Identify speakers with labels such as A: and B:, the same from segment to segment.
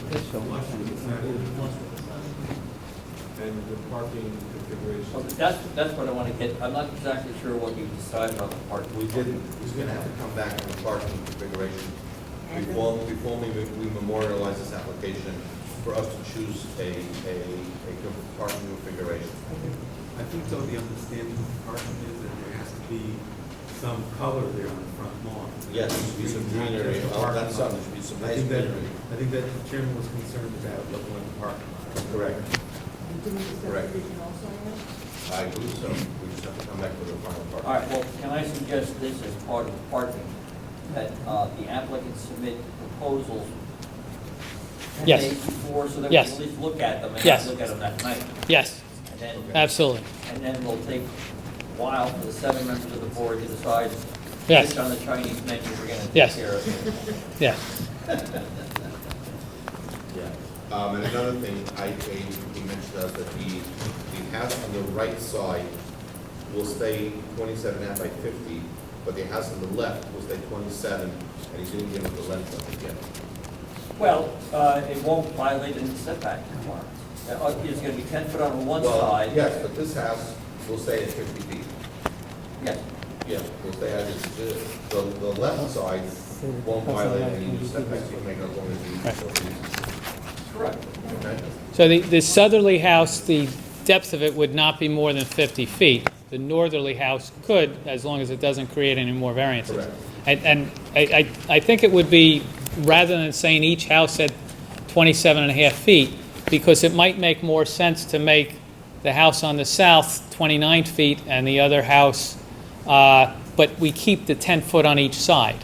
A: so.
B: flush with the setting and the parking
C: Well,
B: configuration.
C: That's, that's what I want to get, I'm not exactly sure what you decided on the part.
D: We didn't, he's gonna have to come back on the parking configuration before, before we we memorialize this application for us to choose a, a, a good parking configuration.
B: I think though the understanding of parking is that there has to be some color there on the front lawn.
D: Yes, there should be some greenery, oh, that's something, there should be some
B: I
D: nice
B: think that,
D: greenery.
B: I think that the chairman was concerned about looking at the parking lot.
D: Correct.
E: And didn't the
D: Correct.
E: subdivision also have?
D: I agree, so we just have to come back with a final parking.
C: All right, well, can I suggest this as part of the parking, that uh, the applicant submit proposals ten
F: Yes.
C: days before, so that we can
F: Yes.
C: at least look at them and not
F: Yes.
C: look at them that night?
F: Yes,
C: And then,
F: absolutely.
C: and then we'll take a while for the seven members of the board to decide
F: Yes.
C: which on the Chinese menu we're going to take
F: Yes.
C: care of.
F: Yeah,
D: Yeah. Um, and another thing, I, I- he mentioned us that the, the house on the right side will stay 27 and a half by fifty, but the house on the left will stay twenty-seven, and he's gonna give it the length of it again.
C: Well, uh, it won't violate any setback requirements. Uh, It's going to be ten foot on one
D: Well,
C: side.
D: Yes, but this house will stay at fifty feet.
C: Yes.
D: Yeah, will stay at its, the, the left side won't violate any new setbacks, will make it as long
F: Right.
D: as you.
C: Correct.
D: Okay?
F: so the, the southerly house, the depth of it would not be more than 50 feet. The northerly house could, as long as it doesn't create any more variances.
D: Correct.
F: And, and I, I, I think it would be, rather than saying each house at 27 and a half feet, because it might make more sense to make the house on the south 29 feet and the other house, uh, but we keep the 10 foot on each side.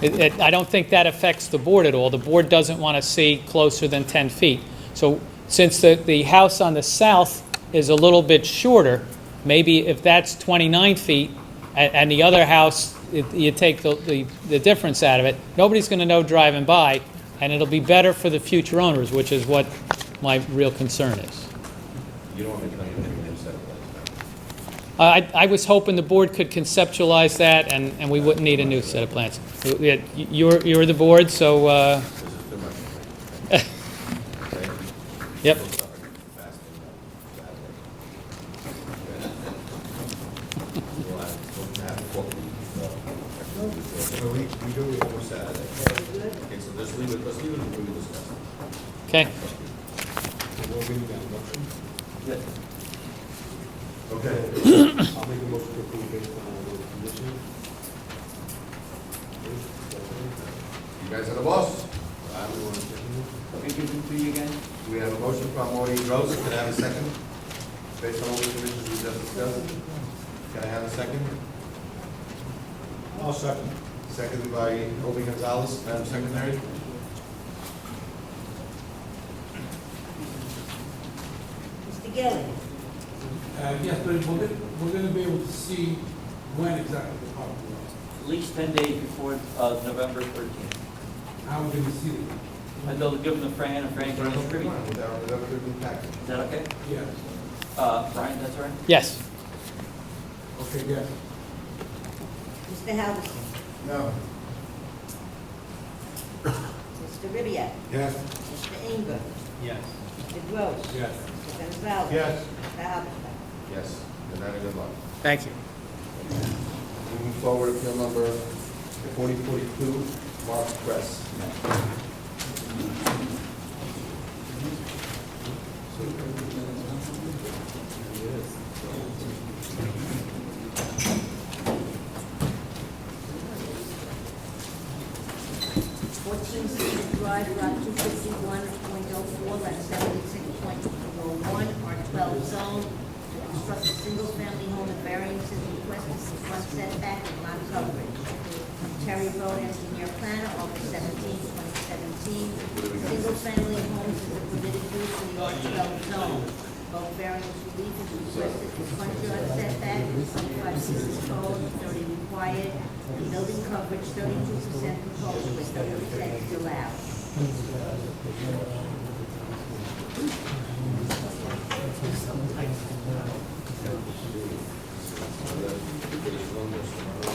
F: It- it- I don't think that affects the board at all. The board doesn't want to see closer than 10 feet. So since the, the house on the south is a little bit shorter, maybe if that's 29 feet and, and the other house, it- you take the, the, the difference out of it, nobody's going to know driving by, and it'll be better for the future owners, which is what my real concern is.
D: You don't want to make any new setbacks.
F: I, I was hoping the board could conceptualize that, and, and we wouldn't need a new set of plans. You- You're, you're the board, so, uh,
D: This is too much. Okay.
F: Yep.
D: We'll stop it fast and, uh, Saturday. We'll have- we'll have what we, uh,
B: So we, we do
D: do before Saturday. Okay, so let's leave it, let's leave it and we discuss.
F: okay?
B: We'll bring down motion.
C: Yes.
B: Okay. I'll make a motion to approve based on those conditions.
D: You guys are the boss.
C: Could you do you again?
D: We have a motion from Maureen Rose. Can I have a second? Based on all the conditions we just discussed. Can I have a second?
B: I'll second.
D: Seconded by Obi Gonzalez, Madam Secretary.
E: Mr. Gelli,
G: Uh, Yes, but we're gonna, we're gonna be able to see when exactly the problem was.
C: At least ten days before, uh, November thirteenth.
G: How we're gonna see it,
C: And they'll give them to Fran and Fran can distribute.
D: Without, without the package.
C: Is that okay?
G: yes.
C: Uh, Brian, that's all right?
F: Yes.
G: Okay, yes.
E: Mr. Halverson,
D: No.
E: Mr. Ribbiat,
B: Yes.
E: Mr. Inger,
B: Yes.
E: Mr. Gross.
G: Yes.
E: Mr. Gonzalez.
B: Yes.
E: Mr. Halverson.
D: Yes, good night and good luck.
F: Thank you.
D: Moving forward, appeal number forty forty-two, Mark Press.
E: Fourteen Cedar Drive, lot two fifty-one point oh four, lot seventy-six point oh one, R twelve zone. To construct a single-family home with variances requested for front setback and lot coverage. Terry Road Engineer Planner, August seventeen, twenty seventeen. Single-family homes is a permitted use in the R twelve zone. Both variance relief is requested for front yard setback, twenty-five sixty code, thirty required. And building coverage, thirty-two percent proposed, with thirty percent is allowed.
D: Yes.